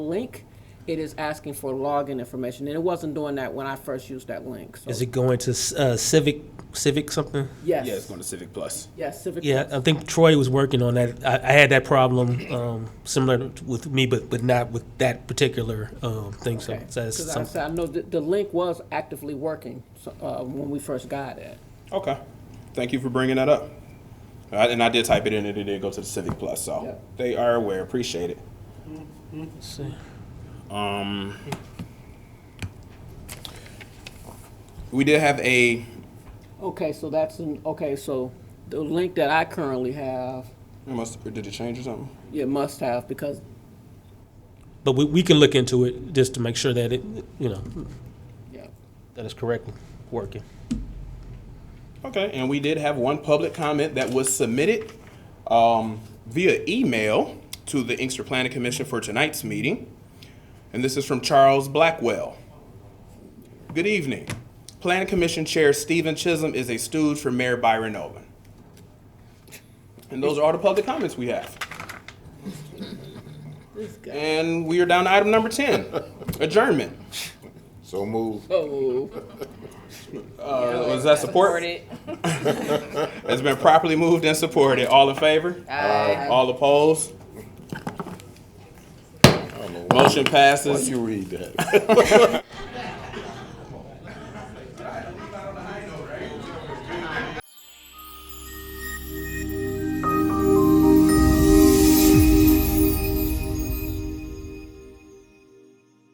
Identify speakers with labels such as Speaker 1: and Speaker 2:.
Speaker 1: link, it is asking for login information, and it wasn't doing that when I first used that link, so.
Speaker 2: Is it going to uh, Civic, Civic something?
Speaker 3: Yeah, it's
Speaker 1: Yes,
Speaker 3: going to Civic Plus.
Speaker 1: yes, Civic.
Speaker 2: Yeah, I think Troy was working on that. I, I had that problem um, similar with me, but, but not with that particular um, thing. So,
Speaker 1: Okay.
Speaker 2: so that's
Speaker 1: 'Cause I
Speaker 2: something.
Speaker 1: said, I know the, the link was actively working, so, uh, when we first got it.
Speaker 3: Okay. Thank you for bringing that up. I, and I did type it in and it did go to the Civic Plus, so
Speaker 1: Yeah.
Speaker 3: they are aware. Appreciate it.
Speaker 2: Let's see.
Speaker 3: We did have a
Speaker 1: Okay, so that's, an okay, so the link that I currently have,
Speaker 3: I must or did it change or something?
Speaker 1: it must have, because,
Speaker 2: But we, we can look into it just to make sure that it, you know,
Speaker 1: yeah.
Speaker 2: that it's correctly working.
Speaker 3: Okay, and we did have one public comment that was submitted um, via email to the Inkster Planning Commission for tonight's meeting. And this is from Charles Blackwell. Good evening. Planning Commission Chair Stephen Chisholm is a stooge for Mayor Byron Owen. And those are all the public comments we have.
Speaker 1: This guy.
Speaker 3: And we are down to item number 10, adjournment.
Speaker 4: So move.
Speaker 1: Oh,
Speaker 3: Uh, Was that support?
Speaker 5: Supported.
Speaker 3: It's been properly moved and supported. All in favor?
Speaker 2: Uh,
Speaker 5: Aye.
Speaker 3: All opposed? Motion passes.
Speaker 4: You read that.